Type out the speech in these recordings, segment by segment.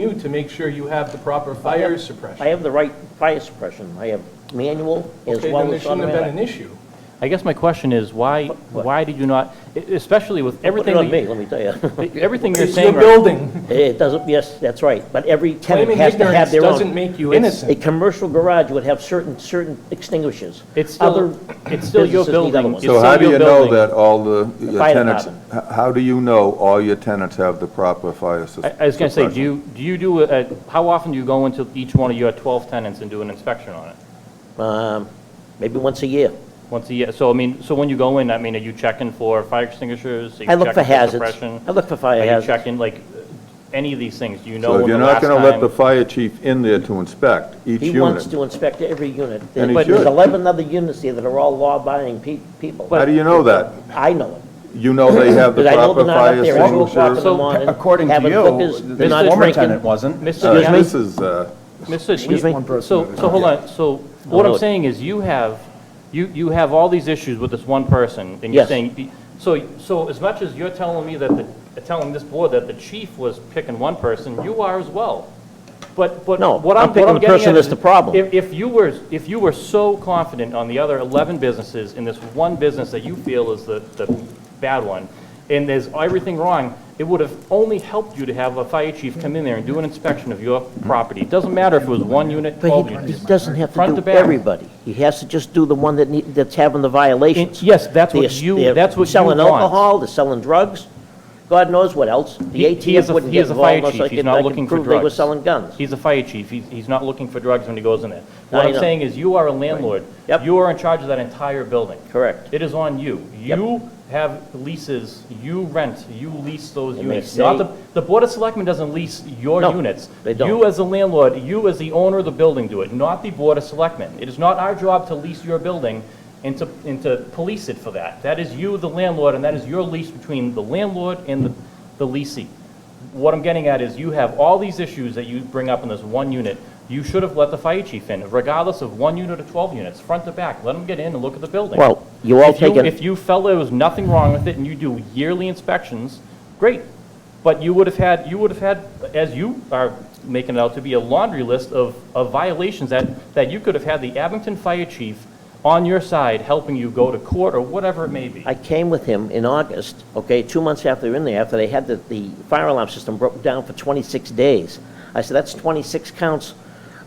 you to make sure you have the proper fire suppression. I have the right fire suppression. I have manual as Okay, well then there as shouldn't have been automatic. an issue. I guess my question is, why, what? why did you not, e- especially with everything, Put it on that me, let me tell you. you- everything you're It's your saying right building. It doesn't, yes, that's right, but every tenant Claiming has to have ignorance their own. doesn't make you It's- A innocent. commercial garage would have certain, certain extinguishers. It's Other still, it's still your businesses need other building. ones. It's So how still do your you know building. that all the your fire tenants, h- how do you know all your tenants have the proper fire sus- I suppression? I was going to say, do you, do you do, a- how often do you go into each one of your 12 tenants and do an inspection on it? Um, Maybe once a year. Once a year, so I mean, so when you go in, I mean, are you checking for fire extinguishers? Are you I look for checking hazards. suppression? I look for fire Are you hazards. checking, like, any of these things? Do you know So if when the you're not last time? going to let the fire chief in there to inspect each He wants unit, to inspect every unit. And he But There's should. 11 other units there that are all law-abiding pe- people. how do you know that? I know it. You know they have the Because I know proper they're not fire up there at 2 o'clock in extinguishers? the So, morning. According to having hookers, you, not the former drinking. tenant wasn't. Mr. Uh, Yan- This is, uh, Mr. Excuse me? Yan- One person So, at a so hold time. on, so what do I'm it. saying is you have, you, you have all these issues with this one person, and you're Yes. saying, so, so as much as you're telling me that the, telling this board that the chief was picking one person, you are as well. But, but No, what I'm I'm, what picking I'm the getting person at that's is the problem. If, if you were, if you were so confident on the other 11 businesses in this one business that you feel is the, the bad one, and there's everything wrong, it would have only helped you to have a fire chief come in there and do an inspection of your property. It Doesn't matter if it was one unit, But 12 he- he units. doesn't have Front to to do back. everybody. He has to just do the one that need, that's having the And violations. Yes, that's They're- what you, they're that's what you Selling want. alcohol, they're selling drugs, God knows what else. The He- he is ATF a- wouldn't he get is a involved fire unless chief. I He's could, not I looking could for prove they were drugs. selling guns. He's a fire chief, he's, he's not looking for drugs when he goes in there. I What I'm know. saying is, you are a landlord. Yep. You are in charge of that entire building. Correct. It is on you. Yep. You have leases, you rent, you lease those And they units. Not say- the, the Board of Selectmen doesn't lease your No, units. they don't. You as the landlord, you as the owner of the building do it, not the Board of Selectmen. It is not our job to lease your building and to, and to police it for that. That is you, the landlord, and that is your lease between the landlord and the, the leasing. What I'm getting at is you have all these issues that you bring up in this one unit. You should have let the fire chief in, regardless of one unit or 12 units, front to back. Let him get in and look at the building. Well, you all If you- take it- If you felt there was nothing wrong with it and you do yearly inspections, great. But you would have had, you would have had, as you are making it out to be, a laundry list of, of violations that, that you could have had the Abington Fire Chief on your side helping you go to court or whatever it may be. I came with him in August, okay, two months after they were in there, after they had the, the fire alarm system broken down for 26 days. I said, that's 26 counts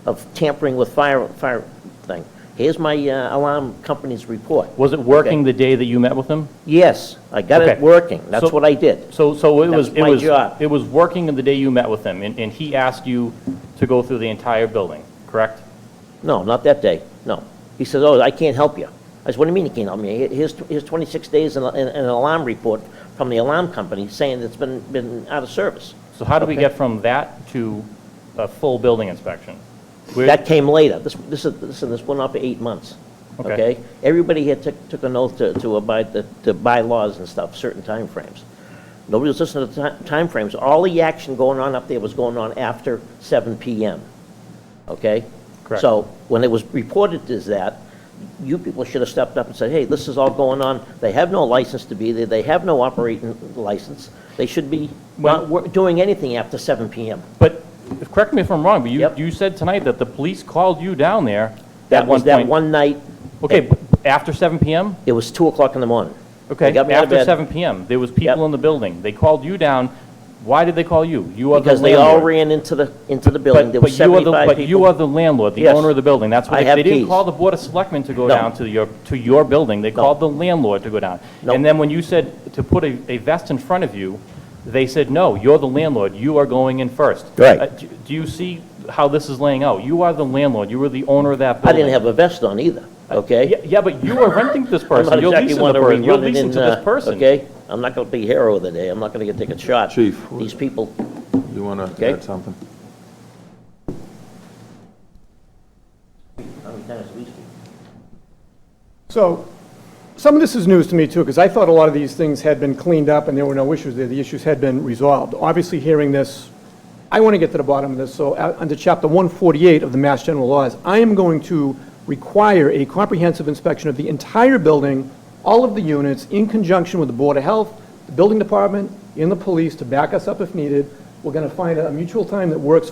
of tampering with fire, fire thing. Here's my uh, alarm company's report. Was it working the day that you met with him? Yes, I got it Okay. working, that's So- what I did. So, so it was, That's it my was, job. it was working the day you met with him and, and he asked you to go through the entire building, correct? No, not that day, no. He says, oh, I can't help you. I said, what do you mean you can't help me? Here- Here's, here's 26 days and and an alarm report from the alarm company saying it's been, been out of service. So how do we get from that to a full building inspection? Where- That came later. This, this is, listen, this went on for eight months, Okay. okay? Everybody here took, took an oath to, to abide the, to bylaws and stuff, certain timeframes. Nobody was listening to the ti- timeframes. All the action going on up there was going on after seven PM, okay? Correct. So when it was reported as that, you people should have stepped up and said, hey, this is all going on. They have no license to be there. They have no operating license. They should be not wor- doing anything after seven PM. But, correct me if I'm wrong, but you, Yep. you said tonight that the police called you down there at That one was point. that one night. Okay, but after 7 PM? It was 2 o'clock in the morning. They Okay, got me out of after bed 7 PM, there was people Yep. in the building. They called you down. Why did they call you? You are the Because they all landlord. ran into the, into the building. But, There were but you are the, 75 but you people. are the landlord, the Yes. owner of the building. That's I what, have they didn't keys. call the Board of Selectmen to go No. down to your, to your building. They called the landlord to go down. No. And then when you said to put a, a vest in front of you, they said, no, you're the landlord. You are going in first. Right. Uh, do- Do you see how this is laying out? You are the landlord. You are the owner of that I building. didn't have a vest on either, Yeah, okay? yeah, but you are renting to this I'm not person. You're exactly leasing the one to person. You're rerun it leasing in, to this uh, person. okay? I'm not going to be hero of the day. I'm not going to get taken shot. Chief. These people, you want to Okay. add something? I'm Dennis Leasky. So, some of this is news to me too, because I thought a lot of these things had been cleaned up and there were no issues there, the issues had been resolved. Obviously, hearing this, I want to get to the bottom of this, so uh, under Chapter 148 of the Mass General Laws, I am going to require a comprehensive inspection of the entire building, all of the units, in conjunction with the Board of Health, the Building Department, and the police to back us up if needed, We're going to find a mutual time that works